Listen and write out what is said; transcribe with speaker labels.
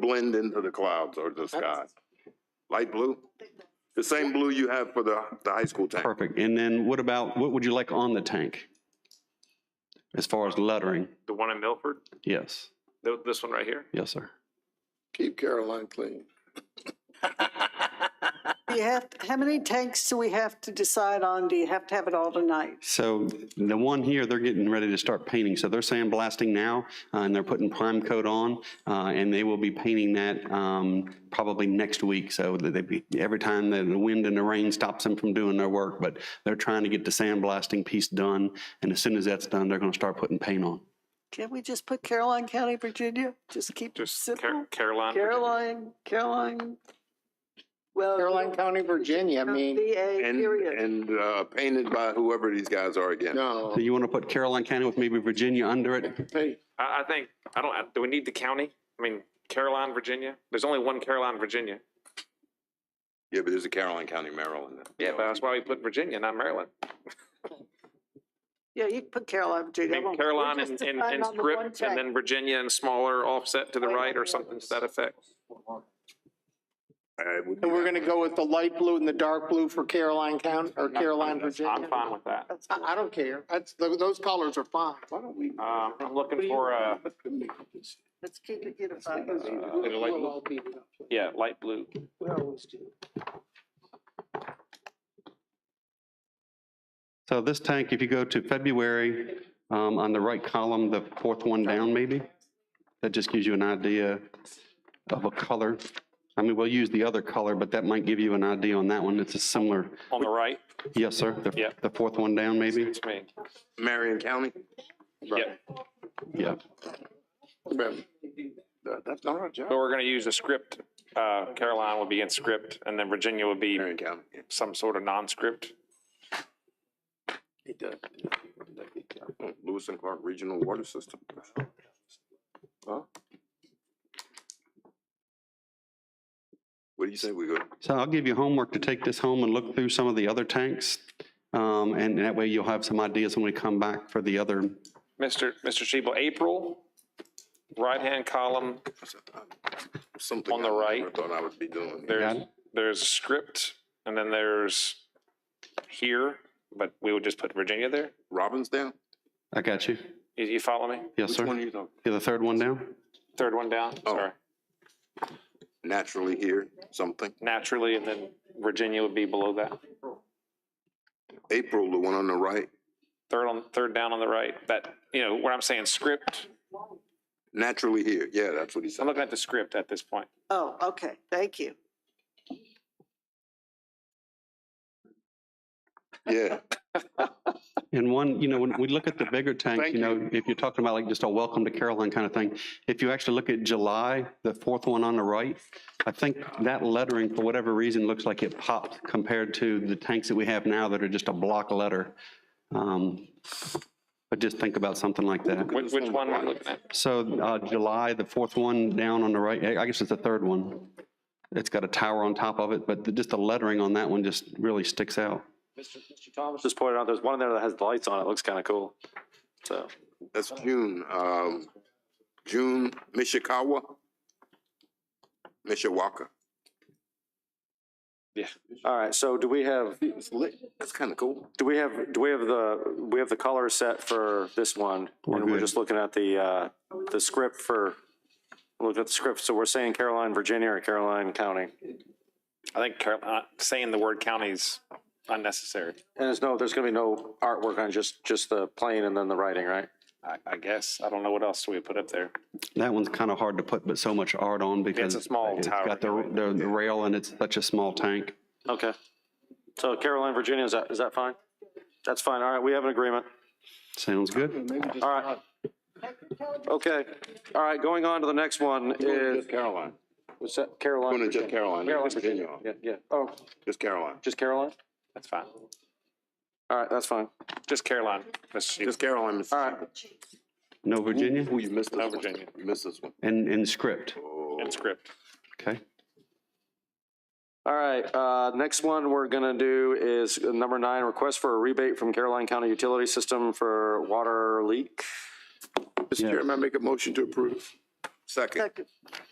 Speaker 1: blend into the clouds or the sky? Light blue? The same blue you have for the, the high school tank?
Speaker 2: Perfect. And then what about, what would you like on the tank? As far as lettering?
Speaker 3: The one in Milford,
Speaker 2: Yes,
Speaker 3: Th- this one right here?
Speaker 2: yes, sir.
Speaker 4: Keep Caroline clean.
Speaker 5: You have, how many tanks do we have to decide on? Do you have to have it all tonight?
Speaker 2: So the one here, they're getting ready to start painting. So they're sandblasting now uh, and they're putting prime coat on. uh, And they will be painting that um, probably next week. So that they be, every time that the wind and the rain stops them from doing their work. But they're trying to get the sandblasting piece done. And as soon as that's done, they're going to start putting paint on.
Speaker 5: Can we just put Caroline County, Virginia? Just keep it
Speaker 3: Just Car-
Speaker 5: simple?
Speaker 3: Caroline.
Speaker 5: Caroline, Caroline, well.
Speaker 4: Caroline County, Virginia, I mean,
Speaker 5: VA,
Speaker 1: And,
Speaker 5: period.
Speaker 1: and, uh, painted by whoever these guys are again?
Speaker 4: no,
Speaker 2: So you want to put Caroline County with maybe Virginia under it?
Speaker 4: hey,
Speaker 3: I, I think, I don't, I- do we need the county? I mean, Caroline, Virginia? There's only one Caroline, Virginia.
Speaker 1: Yeah, but there's a Caroline County, Maryland.
Speaker 3: Yeah, but that's why we put Virginia, not Maryland.
Speaker 5: Yeah, you can put Caroline,
Speaker 3: I
Speaker 5: Virginia. I
Speaker 3: mean,
Speaker 5: won't-
Speaker 3: Caroline
Speaker 5: we'll just
Speaker 3: and, and,
Speaker 5: decide
Speaker 3: and
Speaker 5: on the
Speaker 3: strip,
Speaker 5: one
Speaker 3: and
Speaker 5: tank.
Speaker 3: then Virginia and smaller offset to the
Speaker 5: Way on
Speaker 3: right or
Speaker 5: the
Speaker 3: something to that effect.
Speaker 1: I would
Speaker 4: and
Speaker 1: do
Speaker 4: we're
Speaker 1: that.
Speaker 4: gonna go with the light blue and the dark blue for Caroline County, or Caroline,
Speaker 3: I'm
Speaker 4: Virginia?
Speaker 3: fine with that.
Speaker 5: That's
Speaker 4: I, I don't care, that's, tho- those colors are fine. Why don't we?
Speaker 3: Um, I'm looking for uh, a,
Speaker 5: Let's keep it unified.
Speaker 3: a light blue? yeah, light blue.
Speaker 2: So this tank, if you go to February, um, on the right column, the fourth one down maybe, that just gives you an idea of a color. I mean, we'll use the other color, but that might give you an idea on that one. It's a similar,
Speaker 3: On the right,
Speaker 2: yes, sir? the-
Speaker 3: Yeah.
Speaker 2: The fourth one down maybe?
Speaker 3: suits me.
Speaker 1: Marion County?
Speaker 3: Yeah,
Speaker 2: Yeah.
Speaker 4: That's not our job.
Speaker 3: so we're gonna use a script, uh, Caroline would be in script, and then Virginia would be
Speaker 1: Marion County. yeah.
Speaker 3: some sort of non-script.
Speaker 4: He does.
Speaker 1: Oh, Lewis and Clark Regional Water System. Huh? What do you say we go?
Speaker 2: So I'll give you homework to take this home and look through some of the other tanks. Um, and that way you'll have some ideas when we come back for the other.
Speaker 3: Mr. Mr. Shebel, April, right-hand column,
Speaker 1: Something.
Speaker 3: On the
Speaker 1: I never
Speaker 3: right.
Speaker 1: Thought I would be doing.
Speaker 3: there's,
Speaker 2: Got it.
Speaker 3: there's script, and then there's here, but we would just put Virginia there.
Speaker 1: Robbinsdale?
Speaker 2: I got you.
Speaker 3: You, you follow me?
Speaker 2: Yes,
Speaker 1: Which
Speaker 2: sir?
Speaker 1: one are you talking?
Speaker 2: Yeah, the third one down?
Speaker 3: Third one down,
Speaker 1: Oh.
Speaker 3: sorry.
Speaker 1: Naturally here, something.
Speaker 3: Naturally, and then Virginia would be below that.
Speaker 1: April, the one on the right,
Speaker 3: Third on, third down on the right, that, you know, where I'm saying script,
Speaker 1: naturally here. Yeah, that's what he
Speaker 3: I'm
Speaker 1: said.
Speaker 3: looking at the script at this point.
Speaker 5: Oh, okay, thank you.
Speaker 1: Yeah.
Speaker 2: And one, you know, when we look at the bigger tanks, you know, if you're talking about like just a welcome to Caroline kind of thing, if you actually look at July, the fourth one on the right, I think that lettering, for whatever reason, looks like it popped compared to the tanks that we have now that are just a block letter. Um, But just think about something like that.
Speaker 3: Which, which one am I looking at?
Speaker 2: So uh, July, the fourth one down on the right, I guess it's the third one. It's got a tower on top of it, but the- just the lettering on that one just really sticks out.
Speaker 6: Thomas just pointed out, there's one in there that has the lights on it. Looks kind of cool. So
Speaker 1: That's June, um, June, Mishikawa? Mishawaka.
Speaker 6: all right. So do we have
Speaker 1: It's lit. That's kind of cool.
Speaker 6: do we have do we have the we have the color set for this one?
Speaker 2: We're
Speaker 6: and we're
Speaker 2: good.
Speaker 6: just looking at the uh, the script for look at the script. So we're saying Caroline, Virginia, or Caroline County.
Speaker 3: I think Carol, uh, saying the word county is unnecessary,
Speaker 6: And there's no there's going to be no artwork on just just the plane and then the writing, right?
Speaker 3: I, I guess. I don't know what else we put up there.
Speaker 2: That one's kind of hard to put, but so much art on because.
Speaker 3: small
Speaker 2: it's
Speaker 3: tower.
Speaker 2: Got the, the the rail and it's such a small tank.
Speaker 6: Okay. So Caroline, Virginia, is that is that fine? That's fine. All right, we have an agreement.
Speaker 2: Sounds good.
Speaker 6: All right. Okay. All right, going on to the next one is
Speaker 1: Just Caroline.
Speaker 6: what's that? Caroline.
Speaker 1: Going to just
Speaker 6: Virginia.
Speaker 1: Caroline.
Speaker 6: Caroline,
Speaker 1: Just Virginia.
Speaker 6: Yeah, yeah. Oh,
Speaker 1: Just Caroline.
Speaker 6: just Caroline?
Speaker 3: That's fine.
Speaker 6: All right, that's fine.
Speaker 3: Just Caroline, Mr. Shebel.
Speaker 1: Just Caroline. Miss-
Speaker 6: All right.
Speaker 2: No Virginia
Speaker 1: Ooh, you missed this
Speaker 3: No,
Speaker 1: one.
Speaker 3: Virginia.
Speaker 1: You missed this one.
Speaker 2: and, and script.
Speaker 1: Oh.
Speaker 3: and script.
Speaker 2: Okay.
Speaker 6: All right, uh, next one we're gonna do is number nine, request for a rebate from Caroline County Utility System for water leak.
Speaker 4: Mr. Chairman, I make a motion to approve.
Speaker 1: Second.
Speaker 5: Second.